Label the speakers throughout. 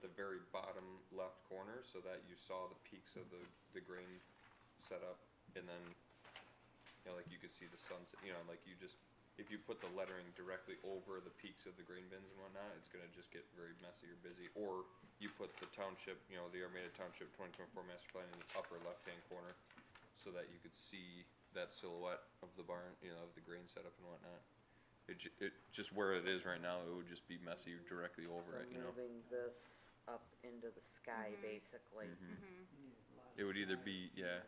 Speaker 1: the very bottom left corner so that you saw the peaks of the, the grain setup and then, you know, like you could see the sunset, you know, like you just, if you put the lettering directly over the peaks of the grain bins and whatnot, it's gonna just get very messy or busy. Or you put the township, you know, the Armada Township twenty twenty-four master plan in the upper left-hand corner so that you could see that silhouette of the barn, you know, of the grain setup and whatnot. It ju- it, just where it is right now, it would just be messy directly over it, you know?
Speaker 2: So moving this up into the sky, basically.
Speaker 1: Mm-hmm. It would either be- yeah.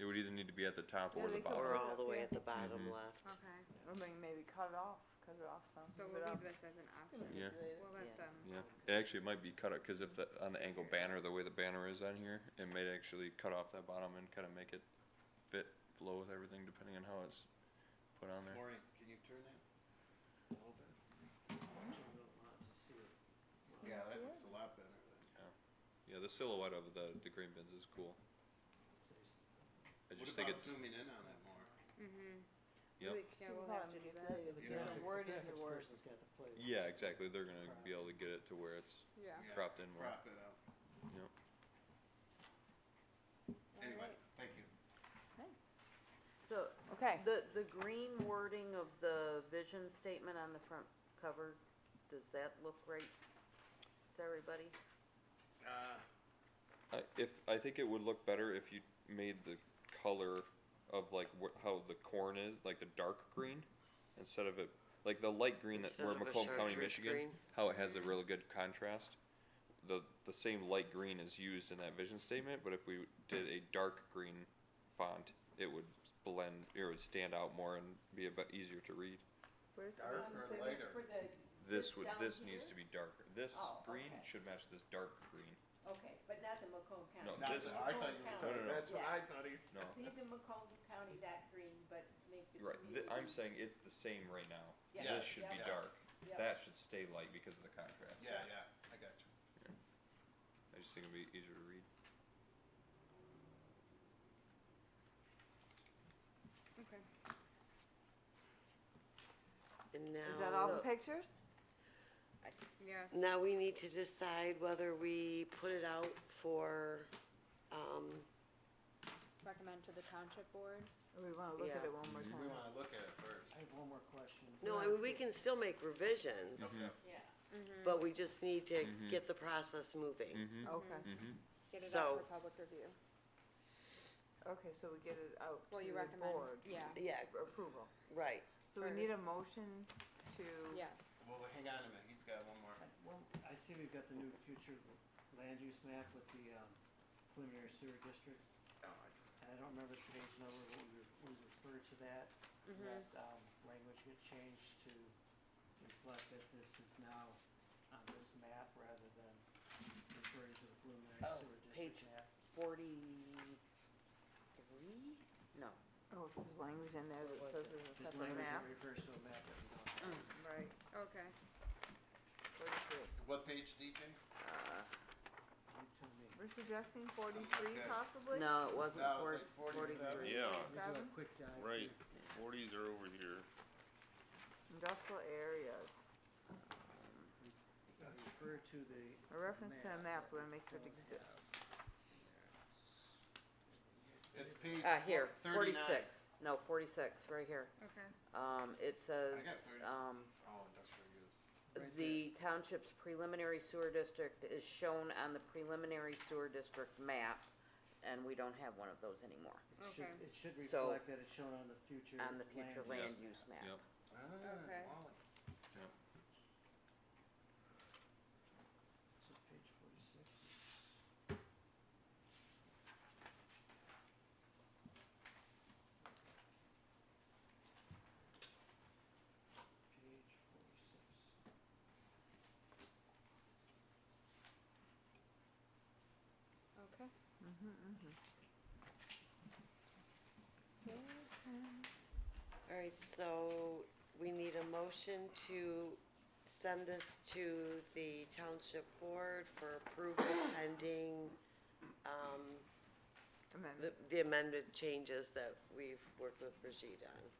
Speaker 1: It would either need to be at the top or
Speaker 3: Yeah,
Speaker 1: the
Speaker 3: they could
Speaker 1: bottom.
Speaker 2: Or all
Speaker 3: up,
Speaker 2: the way at
Speaker 3: yeah.
Speaker 2: the bottom
Speaker 1: Mhm.
Speaker 2: left.
Speaker 4: Okay,
Speaker 3: I mean, maybe cut it off, cut it off some. uh,
Speaker 4: so
Speaker 3: leave
Speaker 4: we'll leave
Speaker 3: it up.
Speaker 4: this as an option.
Speaker 1: Yeah.
Speaker 4: We'll let
Speaker 2: Yeah.
Speaker 4: them,
Speaker 1: Yeah, it actually might be cut up, cause if the, on the angle banner, the way the banner is on here, it might actually cut off that bottom and kinda make it fit, flow with everything, depending on how it's put on there.
Speaker 5: Maureen, can you turn that a little bit? Yeah, that looks a lot better than.
Speaker 1: Yeah, the silhouette of the, the green bins is cool. I
Speaker 5: What
Speaker 1: just think
Speaker 5: about
Speaker 1: it's,
Speaker 5: zooming in on that more?
Speaker 4: mhm,
Speaker 1: yep,
Speaker 3: So
Speaker 4: Yeah, we'll
Speaker 3: probably
Speaker 4: have to
Speaker 3: make
Speaker 4: do
Speaker 3: it
Speaker 4: that.
Speaker 3: later, but
Speaker 5: You know,
Speaker 3: the
Speaker 5: if the
Speaker 3: wording of the word.
Speaker 1: yeah, exactly, they're gonna be able to get it to where it's
Speaker 4: yeah.
Speaker 5: Yeah,
Speaker 1: cropped in more,
Speaker 5: Crop it out.
Speaker 1: yep.
Speaker 5: Anyway, thank you.
Speaker 2: So,
Speaker 3: Okay,
Speaker 2: the, the green wording of the vision statement on the front cover, does that look right to everybody?
Speaker 5: Uh,
Speaker 1: I, if, I think it would look better if you made the color of like wh- how the corn is, like the dark green, instead of it, like the light green that,
Speaker 6: Instead
Speaker 1: we're
Speaker 6: of a
Speaker 1: Macomb County,
Speaker 6: chartreuse
Speaker 1: Michigan,
Speaker 6: green?
Speaker 1: how it has a really good contrast. The, the same light green is used in that vision statement, but if we did a dark green font, it would blend, it would stand out more and be a bit easier to read.
Speaker 3: where's the
Speaker 5: dark
Speaker 3: bottom
Speaker 5: or
Speaker 3: table?
Speaker 5: lighter?
Speaker 7: For the,
Speaker 1: This
Speaker 7: This
Speaker 1: would,
Speaker 7: down
Speaker 1: this needs to
Speaker 7: here?
Speaker 1: be darker. This
Speaker 7: Oh,
Speaker 1: green
Speaker 7: okay.
Speaker 1: should match this dark green.
Speaker 7: okay, but not the Macomb County.
Speaker 1: No,
Speaker 5: Not
Speaker 1: this-
Speaker 5: that- I thought you
Speaker 1: No,
Speaker 5: were
Speaker 7: Macomb
Speaker 1: no,
Speaker 5: talking,
Speaker 1: no.
Speaker 5: that's what
Speaker 7: Yeah.
Speaker 5: I thought he's.
Speaker 1: No,
Speaker 7: Leave the Macomb County that green, but make the
Speaker 1: Right,
Speaker 7: community.
Speaker 1: th- I'm saying it's the same right now.
Speaker 7: Yeah.
Speaker 1: This should be
Speaker 7: Yeah.
Speaker 1: dark.
Speaker 7: Yeah.
Speaker 1: That should stay light because of the contrast.
Speaker 5: Yeah, yeah, I got you.
Speaker 1: I just think it'd be easier to read.
Speaker 4: Okay,
Speaker 6: And
Speaker 3: Is that all
Speaker 6: now,
Speaker 3: the
Speaker 2: So-
Speaker 3: pictures?
Speaker 4: yeah,
Speaker 6: now we need to decide whether we put it out for, um,
Speaker 4: recommend to the township board.
Speaker 3: Or we wanna look at
Speaker 6: Yeah.
Speaker 3: it one more
Speaker 5: We
Speaker 3: time?
Speaker 5: wanna look at it first.
Speaker 8: I have one more question.
Speaker 6: no, I mean, we can still make revisions,
Speaker 5: Okay.
Speaker 7: Yeah.
Speaker 3: Mm-hmm.
Speaker 6: but we just need to get the process moving.
Speaker 3: Okay,
Speaker 4: Get it out
Speaker 6: So-
Speaker 4: for public review.
Speaker 3: okay, so we get it out to
Speaker 4: Well, you
Speaker 3: the
Speaker 4: recommend,
Speaker 3: board.
Speaker 4: yeah,
Speaker 6: Yeah,
Speaker 3: for Approval.
Speaker 6: right.
Speaker 3: So we
Speaker 4: For-
Speaker 3: need a motion to.
Speaker 4: yes.
Speaker 5: Well, hang on a minute, he's got one more.
Speaker 8: Well, I see we've got the new future land use map with the um, preliminary sewer district. And Oh, I don't remember the page number, but we, re- we referred to that, that, um, language get changed to reflect that this is now on this map rather than referring to the preliminary
Speaker 2: Oh,
Speaker 8: sewer
Speaker 2: page
Speaker 8: district map.
Speaker 2: Forty-three? No.
Speaker 3: Oh, if there's language in there that
Speaker 2: What
Speaker 3: says
Speaker 2: was it?
Speaker 3: there's a
Speaker 8: There's
Speaker 3: separate
Speaker 8: language
Speaker 3: map.
Speaker 8: that refers to a map that we don't have.
Speaker 3: Right,
Speaker 4: Okay,
Speaker 3: forty-three.
Speaker 5: What page, DJ?
Speaker 3: Uh,
Speaker 8: You tell me.
Speaker 3: we're suggesting forty-three
Speaker 5: Okay.
Speaker 3: possibly?
Speaker 2: No, it wasn't
Speaker 5: No,
Speaker 2: four,
Speaker 5: Oh, it's like forty-seven.
Speaker 2: forty-three.
Speaker 9: Yeah,
Speaker 8: Let me do
Speaker 3: Seven?
Speaker 8: a quick dive.
Speaker 9: right,
Speaker 8: here.
Speaker 9: forties are over here.
Speaker 3: Industrial areas.
Speaker 8: Refer to the.
Speaker 3: A reference to a map, we're gonna make sure it
Speaker 8: that we don't have.
Speaker 3: exists.
Speaker 5: It's page
Speaker 2: Uh, here,
Speaker 5: thirty-nine.
Speaker 2: forty-six, no, forty-six, right here.
Speaker 4: okay.
Speaker 2: Um, it says,
Speaker 5: thirty.
Speaker 2: um,
Speaker 5: Oh, industrial use.
Speaker 8: Right
Speaker 2: the township's preliminary sewer district is shown on the preliminary sewer district map, and we don't have one of those anymore,
Speaker 8: It should,
Speaker 4: Okay.
Speaker 8: it should
Speaker 2: So-
Speaker 8: reflect that it's shown on the future land.
Speaker 2: on the future land use map.
Speaker 1: Yep.
Speaker 5: Ah,
Speaker 4: Okay.
Speaker 5: Wally.
Speaker 8: So page forty-six. Page forty-six.
Speaker 4: Okay.
Speaker 6: All right, so we need a motion to send this to the township board for approval pending, um,
Speaker 3: Amendment.
Speaker 6: the- the amended changes that we've worked with Brigitte on.